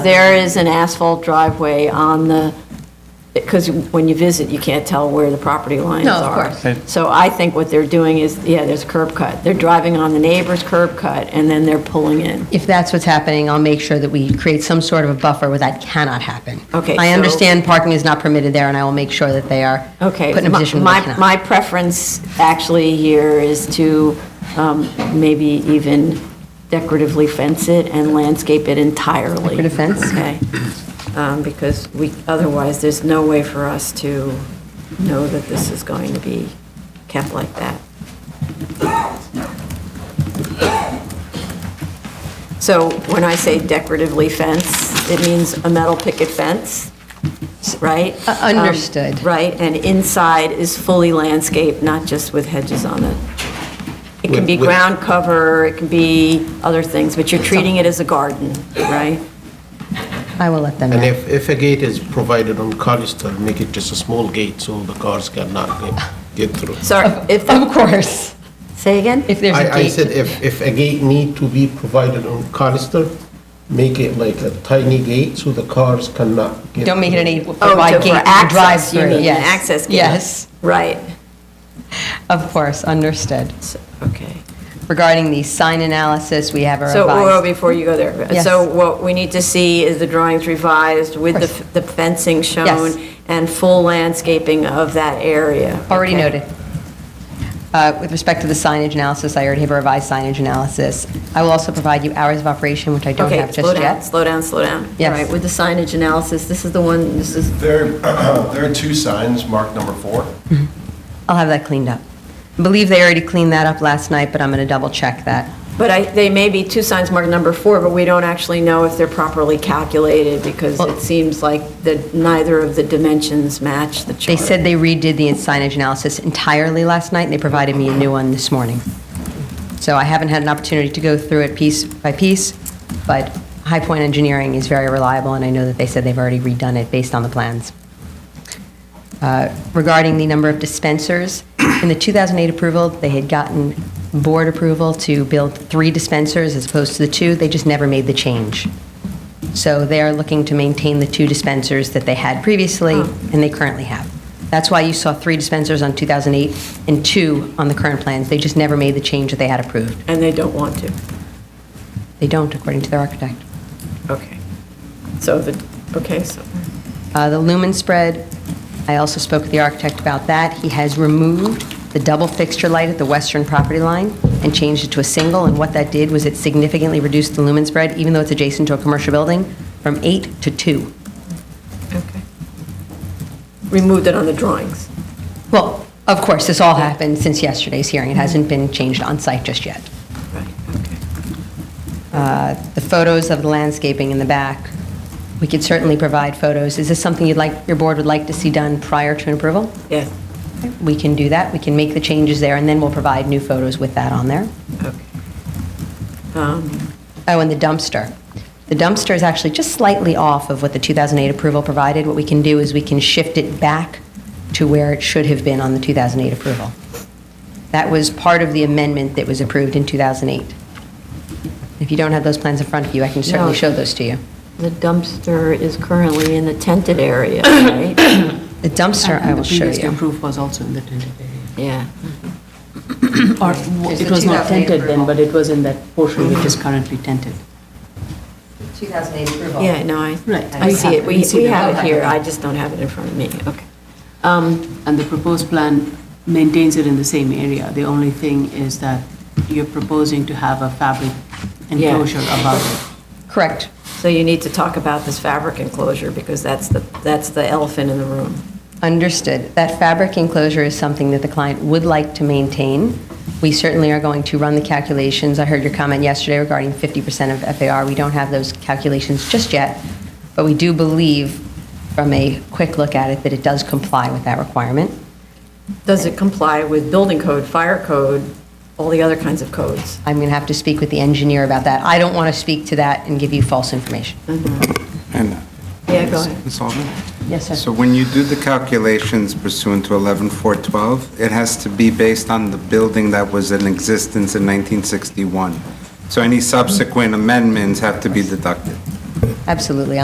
There is an asphalt driveway on the, because when you visit, you can't tell where the property lines No, of are. course. Okay. So I think what they're doing is, yeah, there's a curb cut. They're driving on the neighbor's curb cut, and then they're pulling in. If that's what's happening, I'll make sure that we create some sort of a buffer where that cannot happen. Okay, I so- understand parking is not permitted there, and I will make sure that they are put Okay. in a my- position where they My, cannot. my preference actually here is to um, maybe even decoratively fence it and landscape it entirely. Decorative fence? Okay. Um, Because we, otherwise, there's no way for us to know that this is going to be kept like that. So when I say decoratively fence, it means a metal picket fence, right? Uh, understood. Um, Right, and inside is fully landscaped, not just with hedges on it. It can be With- with- ground cover, it can be other things, but you're treating it as a garden, right? I will let them And know. if, if a gate is provided on Colister, make it just a small gate so the cars cannot get- get through. Sorry, if, the- Of course, say again? if there's a I, I gate. said if, if a gate need to be provided on Colister, make it like a tiny gate so the cars cannot get. Don't make it an through. Oh, to- eight-foot for gate, access, you drive-through, mean, yes. access gate. Yes, Right, of course, understood. So- okay. Regarding the sign analysis, we have a So, well, revised. before you go there, Yes. so what we need to see is the drawings revised with the Of course. f- the fencing shown and full landscaping of that area. Already Okay. noted. Uh, With respect to the signage analysis, I already have a revised signage analysis. I will also provide you hours of operation, which I don't Okay, have slow just down, yet. slow down, slow down. Yes. All right, with the signage analysis, this is the one, this is, There, there are two signs marked number four. I'll have that cleaned up. I believe they already cleaned that up last night, but I'm going to double-check that. but I, they may be two signs marked number four, but we don't actually know if they're properly calculated because Well- it seems like that neither of the dimensions match the chart. They said they redid the signage analysis entirely last night, and they provided me a new one this morning. So I haven't had an opportunity to go through it piece by piece, but High Point Engineering is very reliable, and I know that they said they've already redone it based on the plans. Uh, Regarding the number of dispensers, in the 2008 approval, they had gotten board approval to build three dispensers as opposed to the two. They just never made the change. So they are looking to maintain the two dispensers that they had previously and they currently have. That's why you saw three dispensers on 2008 and two on the current plans. They just never made the change that they had approved. And they don't want to. They don't, according to their architect. Okay. So the, okay, so, Uh, The lumen spread, I also spoke with the architect about that. He has removed the double fixture light at the western property line and changed it to a single, and what that did was it significantly reduced the lumen spread, even though it's adjacent to a commercial building, from eight to two. okay. Removed it on the drawings. Well, of course, this all happened since yesterday's hearing. It hasn't been changed on-site just yet. Right, okay. Uh, The photos of the landscaping in the back, we could certainly provide photos. Is this something you'd like, your board would like to see done prior to an approval? Yes, We can do that. We can make the changes there, and then we'll provide new photos with that on there. okay. Um, Oh, and the dumpster. The dumpster is actually just slightly off of what the 2008 approval provided. What we can do is we can shift it back to where it should have been on the 2008 approval. That was part of the amendment that was approved in 2008. If you don't have those plans in front of you, I can certainly No. show those to you. The dumpster is currently in the tented area, right? The dumpster, I will show The previous you. approval was also in the tented area. Yeah. Or It's it the was 2008 not tented then, approval. but it was in that portion which is currently tented. 2008 approval. Yeah, no, I, Right. I We see have it, it. we We see we it. have it Okay. here, I just don't have it in front of me, okay. Um, And the proposed plan maintains it in the same area. The only thing is that you're proposing to have a fabric Yeah. enclosure above it. Correct. So you need to talk about this fabric enclosure, because that's the, that's the elephant in the room. Understood. That fabric enclosure is something that the client would like to maintain. We certainly are going to run the calculations. I heard your comment yesterday regarding 50% of FAR. We don't have those calculations just yet, but we do believe from a quick look at it that it does comply with that requirement. Does it comply with building code, fire code, all the other kinds of codes? I'm going to have to speak with the engineer about that. I don't want to speak to that and give you false information. And Yeah, go ahead. Ms. Alden? Yes, sir. So when you do the calculations pursuant to 11412, it has to be based on the building that was in existence in 1961. So any subsequent amendments have to be deducted. Absolutely.